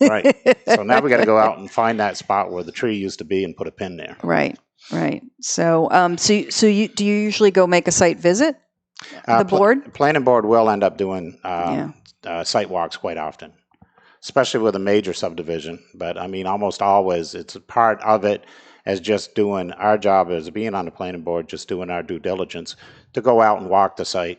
Right. So now we got to go out and find that spot where the tree used to be and put a pin there. Right, right. So, um, so, so you, do you usually go make a site visit? Uh, The pla- board? Planning board will end up doing Yeah. uh, uh, site walks quite often, especially with a major subdivision. But I mean, almost always, it's a part of it as just doing, our job as being on the planning board, just doing our due diligence to go out and walk the site.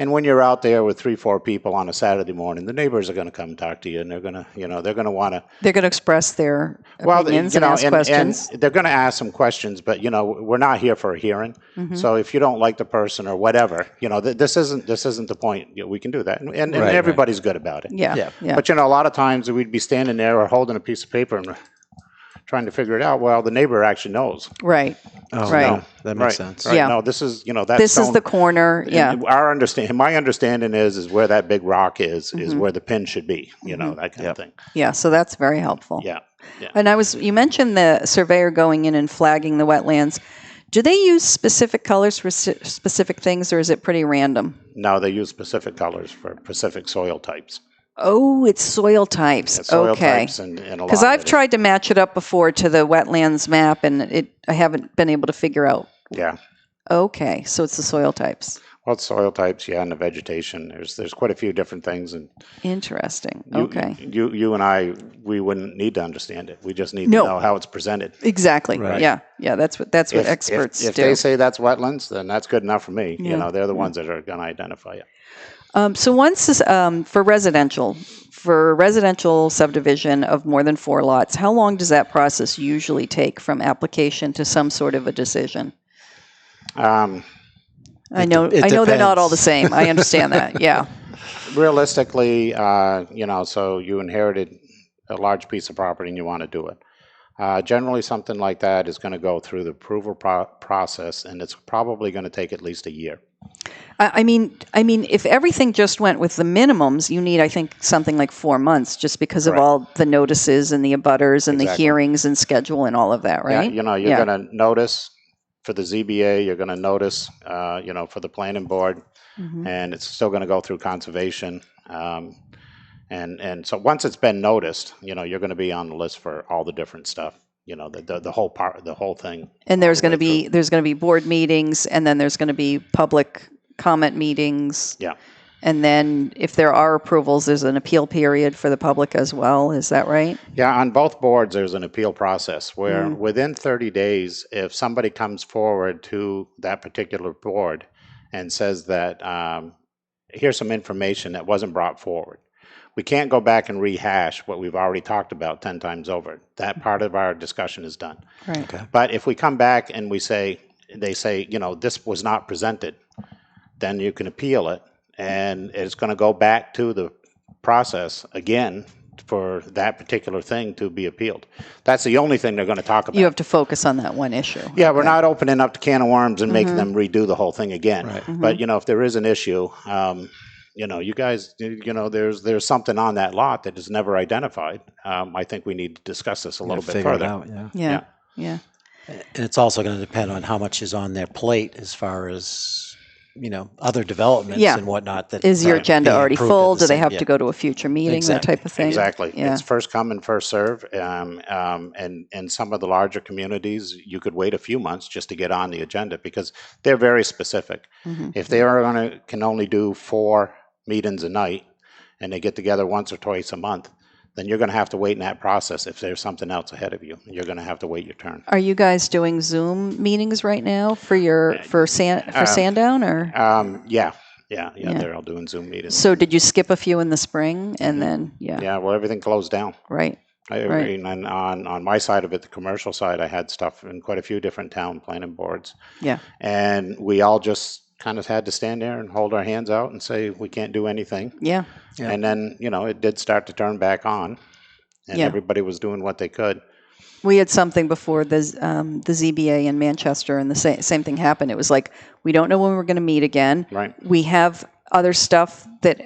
And when you're out there with three, four people on a Saturday morning, the neighbors are going to come talk to you and they're going to, you know, they're going to want to They're going to express their well, opinions you know, and ask questions. they're going to ask some questions, but you know, we're not here for a hearing. Mm-hmm. So if you don't like the person or whatever, you know, th- this isn't this isn't the point. You know, we can do that, and, and, and Right, right. everybody's good about it. Yeah, Yeah. yeah, But you know, a lot of times we'd be standing there or holding a piece of paper and trying to figure it out. Well, the neighbor actually knows. right. Oh, Right. no, that makes right, sense. Right. Yeah. No, this is you know that. This is stone- the corner, yeah. and Our understanding, my understanding is, is where that big rock is, is Mhm. where the pin should be. You know Mm-hmm. that kind Yep. of thing. Yeah, so that's very helpful. Yeah. And I was, you mentioned the surveyor going in and flagging the wetlands. Do they use specific colors for s- specific things, or is it pretty random? Now they use specific colors for specific soil types. Oh, it's soil types. Yeah, soil okay. types and, and a lot Because of I've it. tried to match it up before to the wetlands map, and it I haven't been able to figure out. Yeah. Okay, so it's the soil types. Well, it's soil types, yeah, and the vegetation. There's there's quite a few different things, and Interesting. you, okay. you you and I we wouldn't need to understand it. We just need No. to know how it's presented. Exactly. Right. Yeah. Yeah. That's what that's what If- if- experts if, do. they say that's wetlands, then that's good enough for me. Yeah. You know, they're the ones that are going to identify it. Um, so once this, um, for residential, for residential subdivision of more than four lots, how long does that process usually take from application to some sort of a decision? Um, I know, de- it I know they're not all the depends. same. I understand that. Yeah. realistically, uh, you know, so you inherited a large piece of property and you want to do it. Uh, generally, something like that is going to go through the approval pro- process, and it's probably going to take at least a year. I, I mean, I mean, if everything just went with the minimums, you need, I think, something like four months, just because of Correct. all the notices and the abutters and the Exactly. hearings and schedule and all of that, Yeah, right? You know, you're Yeah. going to notice for the ZBA, you're going to notice, uh, you know, for the planning board, Mhm. and it's still going to go through conservation. Um, and, and so once it's been noticed, you know, you're going to be on the list for all the different stuff, you know, the, the, the whole part, the whole thing. And there's going to way through. be there's going to be board meetings, and then there's going to be public comment meetings. Yeah. And then if there are approvals, there's an appeal period for the public as well. Is that right? Yeah, on both boards, there's an appeal process where Mm. within 30 days, if somebody comes forward to that particular board and says that um, here's some information that wasn't brought forward, we can't go back and rehash what we've already talked about 10 times over. That part of our discussion is done. Right. But if we come back and we say, they say, you know, this was not presented, then you can appeal it. And it's going to go back to the process again for that particular thing to be appealed. That's the only thing they're going to talk about. You have to focus on that one issue. yeah, we're not opening up the can of worms and making Mm-hmm. them redo the whole thing again. Right. But, you know, if there is an issue, um, you know, you guys, you you know, there's there's something on that lot that is never identified. Um, I think we need to discuss this a little bit Figure it further. out, yeah. Yeah. Yeah. And it's also going to depend on how much is on their plate as far as, you know, other developments Yeah. and whatnot. That Is your aren't agenda being already approved at full? the Do they same- have yeah. to go to a future meeting? Exactly. That type of thing. Exactly. Yeah. It's first come and first serve. Um, um, and and some of the larger communities, you could wait a few months just to get on the agenda because they're very specific. Mhm. If they are going to can only do four meetings a night, and they get together once or twice a month, then you're going to have to wait in that process. If there's something else ahead of you, you're going to have to wait your turn. Are you guys doing Zoom meetings right now for your for San, for Um, Sandown or? Um, yeah, yeah, yeah, Yeah. They're all doing Zoom meetings. So did you skip a few in the spring and then yeah, yeah, well, everything closed down. right Right. I agree. And on, on my side of it, the commercial side, I had stuff in quite a few different town planning boards. Yeah. And we all just kind of had to stand there and hold our hands out and say, we can't do anything. yeah Yeah. And then, you know, it did start to turn back on and Yeah. everybody was doing what they could. We had something before the Z- um, the ZBA in Manchester, and the sa- same thing happened. It was like we don't know when we're going to meet again. Right. We have other stuff that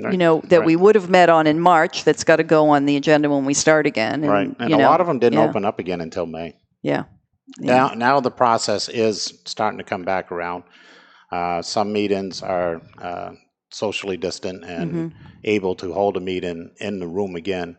you Right, know that right. we would have met on in March that's got to go on the agenda when we start again. And, right. And you a know, lot of them didn't yeah. open up again until May. yeah, yeah. Now, now the process is starting to come back around. Uh, some meetings are Mm-hmm. uh, socially distant and able to hold a meeting in the room again.